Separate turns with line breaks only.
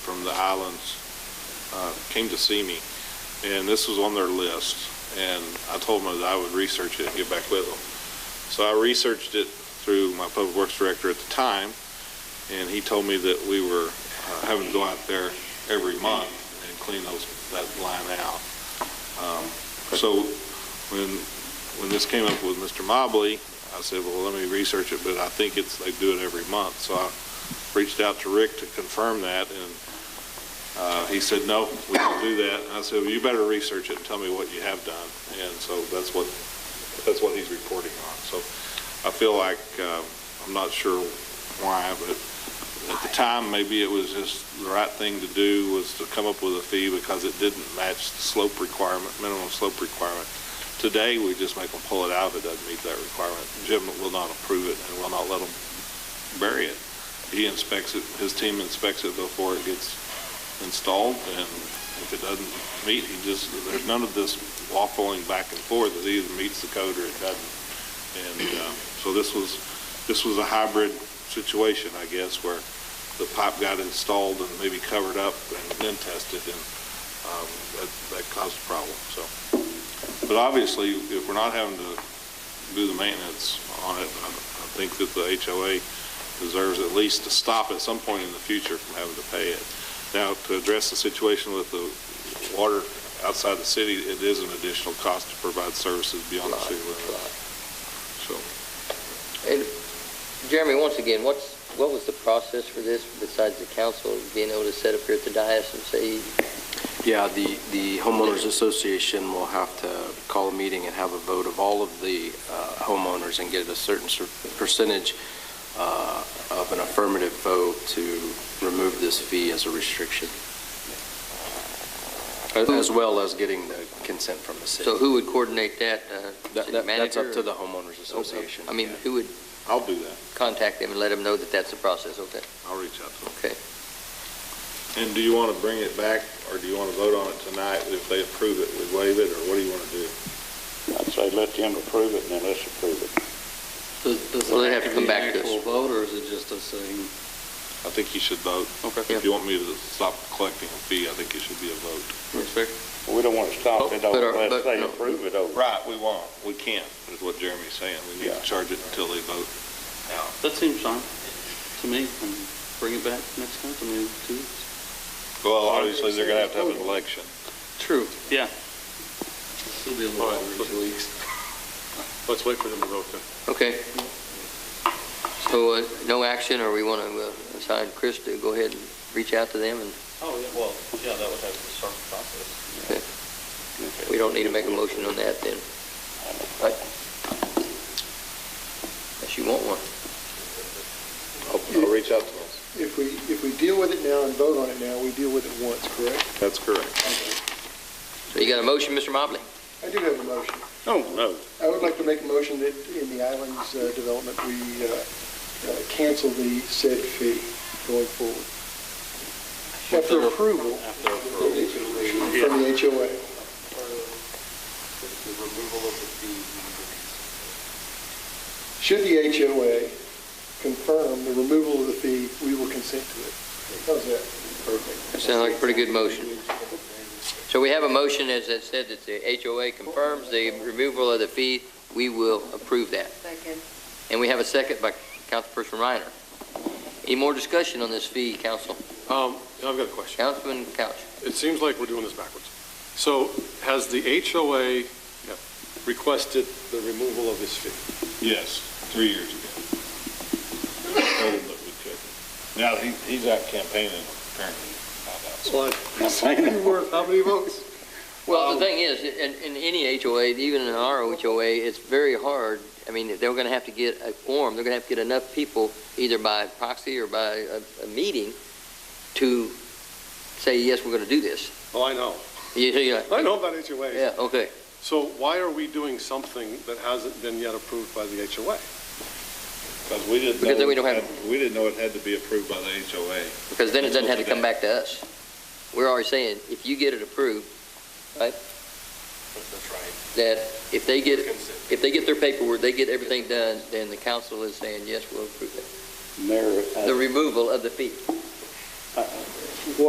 from the islands uh, came to see me, and this was on their list. And I told them that I would research it and get back with them. So I researched it through my public works director at the time, and he told me that we were uh, having to go out there every month and clean those, that line out. Um, So when, when this came up with Mr. Mobley, I said, well, let me research it, but I think it's, they do it every month. So I reached out to Rick to confirm that, and uh, he said, no, we don't do that. And I said, well, you better research it and tell me what you have done. And so that's what, that's what he's reporting on. So I feel like, uh, I'm not sure why, but at the time, maybe it was just the right thing to do was to come up with a fee because it didn't match the slope requirement, minimum slope requirement. Today, we just make them pull it out if it doesn't meet that requirement. Jim will not approve it and will not let them bury it. He inspects it, his team inspects it before it gets installed, and if it doesn't meet, he just, there's none of this waffling back and forth. It either meets the code or it doesn't. And um, so this was, this was a hybrid situation, I guess, where the pipe got installed and maybe covered up and then tested, and um, that that caused a problem, so. But obviously, if we're not having to do the maintenance on it, I I think that the HOA deserves at least to stop at some point in the future from having to pay it. Now, to address the situation with the water outside the city, it is an additional cost to provide services beyond the
Right,
city limits,
right.
so.
And Jeremy, once again, what's, what was the process for this besides the council being able to set up here at the dais and say,
Yeah, the, the homeowners association will have to call a meeting and have a vote of all of the uh, homeowners and get a certain cer- percentage uh, of an affirmative vote to remove this fee as a restriction. As- As well as getting the consent from the city.
so who would coordinate that? uh,
That-
city
that- That's
manager
up to
or-
the homeowners association.
I mean,
yeah.
who would
I'll do that.
contact them and let them know that that's the process, okay?
I'll reach out to them.
Okay.
And do you want to bring it back, or do you want to vote on it tonight? If they approve it, we waive it, or what do you want to do?
I'd say let them approve it and then let's approve it.
Does does
Well,
it
they'd
have to be an
back to us.
actual vote, or is it just us saying?
I think you should vote.
Okay.
If you want me to stop collecting a fee, I think it should be a vote.
We don't want to stop it
But- Oh, but
over,
our- but
let's say
no.
approve it over.
Right, we won't. We can't, is what Jeremy's saying. We need
Yeah.
to charge it until they vote.
That seems fine to me. And Bring it back next month, I mean, two weeks.
Well, obviously, they're going to have to have an election.
True. Yeah. It'll be a little over two weeks.
Let's wait for them to vote then.
Okay. So, uh, no action, or we want to assign Chris to go ahead and reach out to them, and
Oh, yeah, well, yeah, that would have to start the process.
we don't need to make a motion on that then? Right? Unless you want one.
I'll, I'll reach out to them.
If we, if we deal with it now and vote on it now, we deal with it once, correct?
That's correct.
So you got a motion, Mr. Mobley?
I do have a motion.
No, no.
I would like to make a motion that in the islands uh, development, we uh, uh, cancel the said fee going forward. After approval
After approval.
from the HOA. Should the HOA confirm the removal of the fee, we will consent to it. How's that? Perfect.
That sounds like a pretty good motion. So we have a motion, as I said, that the HOA confirms the removal of the fee. We will approve that.
Second.
And we have a second by Councilperson Reiner. Any more discussion on this fee, Council?
Um, I've got a question.
Councilman Couch?
It seems like we're doing this backwards. So has the HOA requested the removal of this fee?
Yes, three years ago. Told him that we couldn't. Now, he, he's out campaigning, apparently. found out. So
How many votes?
Well, the thing is, in, in any HOA, even in our HOA, it's very hard. I mean, they're going to have to get a quorum, they're going to have to get enough people, either by proxy or by a, a meeting, to say, yes, we're going to do this.
Oh, I know.
You- you're like, "Oh,
I know about HOAs.
Yeah, okay.
So why are we doing something that hasn't been yet approved by the HOA?
Because we didn't know.
Because then we don't have-
it had- We didn't know it had to be approved by the HOA.
Because then it doesn't have to come back to us. We're already saying, if you get it approved, right? That's right. That if they get, if they get their paperwork, they get everything done, then the council is saying, yes, we'll approve it.
Mayor,
The removal of the fee.
I-